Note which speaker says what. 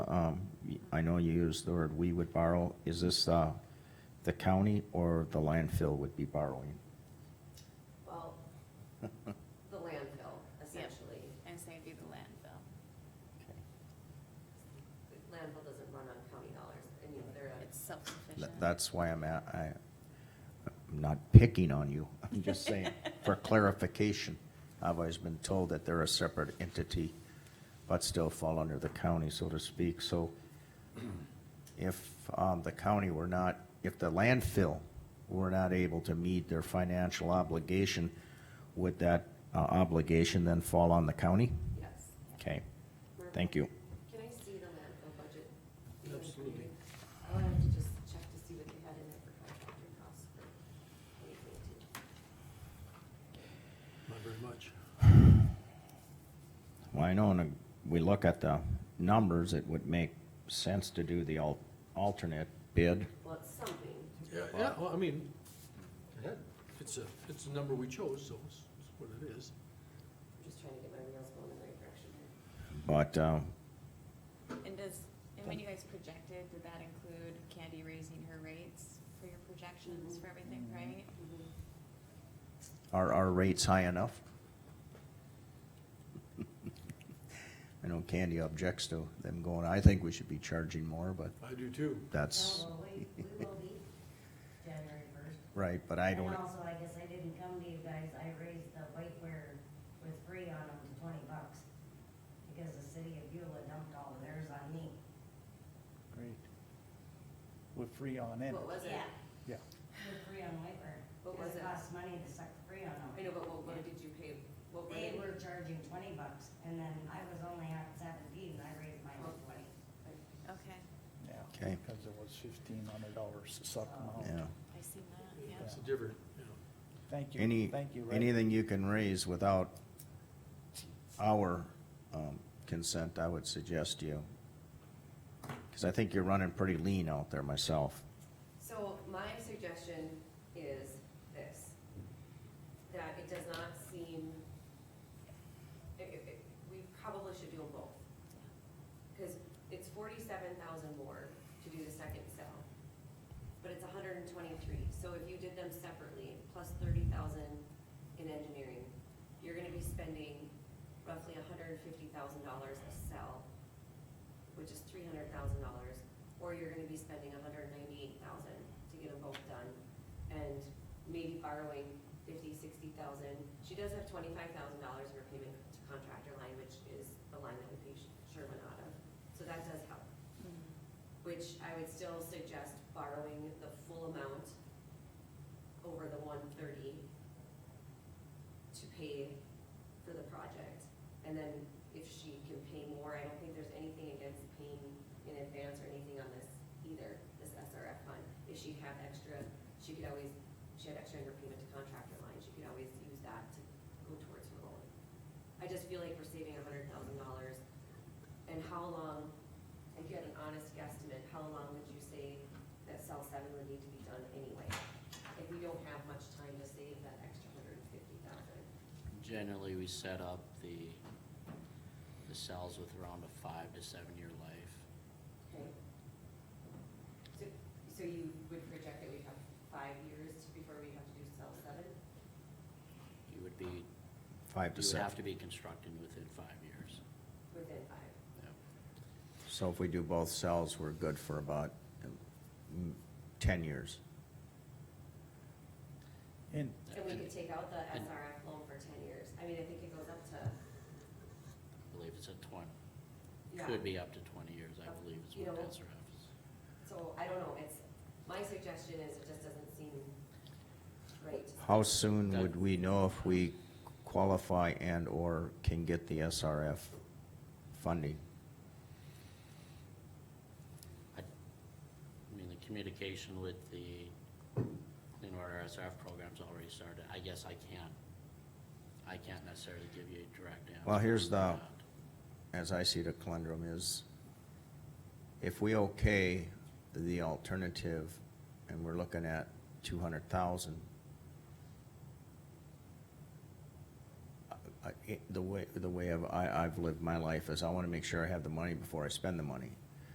Speaker 1: um, I know you used the word we would borrow. Is this, uh, the county or the landfill would be borrowing?
Speaker 2: Well, the landfill, essentially.
Speaker 3: And same through the landfill.
Speaker 1: Okay.
Speaker 2: The Landfill doesn't run on county dollars, and you, they're, a-
Speaker 3: It's self-sufficient.
Speaker 1: Th- That's why I'm at, I, I'm not picking on you. I'm just saying, for clarification, I've always been told that they're a separate entity, but still fall under the county, so to speak. So if um, the county were not, if the landfill were not able to meet their financial obligation, would that uh, obligation then fall on the county?
Speaker 2: yes.
Speaker 1: Okay, thank you.
Speaker 2: Can I see the landfill budget?
Speaker 4: Absolutely.
Speaker 2: I wanted to just check to see what they had in there for contractor costs for twenty twenty-two.
Speaker 4: Not very much.
Speaker 1: Well, I know when I- we look at the numbers, it would make sense to do the al- alternate bid.
Speaker 2: Well, it's something.
Speaker 4: Yeah, yeah, well, I mean, go ahead. it's a, it's a number we chose, so it's it's what it is.
Speaker 2: I'm just trying to get my wheels going in the right direction here.
Speaker 1: But uh,
Speaker 3: And does, and when you guys projected, did that include Candy raising her rates for your projections for everything, right?
Speaker 5: Mm-hmm.
Speaker 1: are our rates high enough? I know Candy objects to them going, I think we should be charging more, but
Speaker 4: I do too.
Speaker 1: that's
Speaker 5: No, well, we, we will be January first.
Speaker 1: right, but I don't,
Speaker 5: And also, I guess I didn't come to you guys, I raised the whiteware with free on them to twenty bucks. Because the city of Beulah dumped all of theirs on me.
Speaker 6: Great. With free on end.
Speaker 2: What was it?
Speaker 6: Yeah.
Speaker 5: With free on whiteware.
Speaker 2: What was
Speaker 5: Because
Speaker 2: it?
Speaker 5: costs money to suck the free on them.
Speaker 2: I know, but what, what did you pay, what were they?
Speaker 5: They were charging twenty bucks, and then I was only at seventeen, and I raised mine to twenty.
Speaker 3: Okay,
Speaker 6: Yeah.
Speaker 1: Okay.
Speaker 6: Because it was fifteen hundred dollars to suck them
Speaker 1: yeah.
Speaker 6: out.
Speaker 3: I see that, yeah.
Speaker 4: It's a different, you know,
Speaker 6: Thank you.
Speaker 1: Any,
Speaker 6: Thank you, Ray.
Speaker 1: anything you can raise without our um, consent, I would suggest you. Because I think you're running pretty lean out there myself.
Speaker 2: So my suggestion is this, that it does not seem, it, it, it- we probably should do them both. Cause it's forty-seven thousand more to do the second cell, but it's hundred and twenty-three, so if you did them separately, plus thirty thousand in engineering, you're gonna be spending roughly hundred and fifty thousand dollars a cell, which is three hundred thousand dollars, or you're gonna be spending hundred and ninety-eight thousand to get them both done, and maybe borrowing fifty, sixty thousand. She does have twenty-five thousand dollars in her payment to contractor line, which is the line that we pay Sh- Sherwin out of, so that does help. Which I would still suggest borrowing the full amount over the one thirty to pay for the project. And then if she can pay more, I don't think there's anything against paying in advance or anything on this either, this SRF fund. If she had extra, she could always, she had extra in her payment to contractor line, she could always use that to go towards her goal. I just feel like we're saving a hundred thousand dollars. And how long, if you had an honest guesstimate, how long would you say that cell seven would need to be done anyway? If we don't have much time to save that extra hundred and fifty thousand.
Speaker 7: Generally, we set up the, the cells with around a five to seven-year life.
Speaker 2: Okay. So, so you would project that we have five years before we have to do cell seven?
Speaker 7: You would be,
Speaker 1: Five to
Speaker 7: you would
Speaker 1: seven.
Speaker 7: have to be constructed within five years.
Speaker 2: Within five.
Speaker 7: Yep.
Speaker 1: So if we do both cells, we're good for about mm, ten years.
Speaker 6: And
Speaker 2: And we could take out the
Speaker 7: And-
Speaker 2: SRF loan for ten years. I mean, I think it goes up to,
Speaker 7: I believe it's a twenty,
Speaker 2: yeah.
Speaker 7: could be up to twenty years, I believe is
Speaker 2: You
Speaker 7: what
Speaker 2: know-
Speaker 7: SRF is.
Speaker 2: So I don't know, it's, my suggestion is it just doesn't seem right.
Speaker 1: How soon would we know if we qualify and/or can get the SRF funding?
Speaker 7: I I mean, the communication with the Clean Water SRF program's already started. I guess I can't, I can't necessarily give you a direct answer.
Speaker 1: Well, here's
Speaker 7: on
Speaker 1: the-
Speaker 7: that.
Speaker 1: as I see the conundrum is, if we okay the alternative, and we're looking at two hundred thousand, the way, the way I've, I, I've lived my life is I wanna make sure I have the money before I spend the money.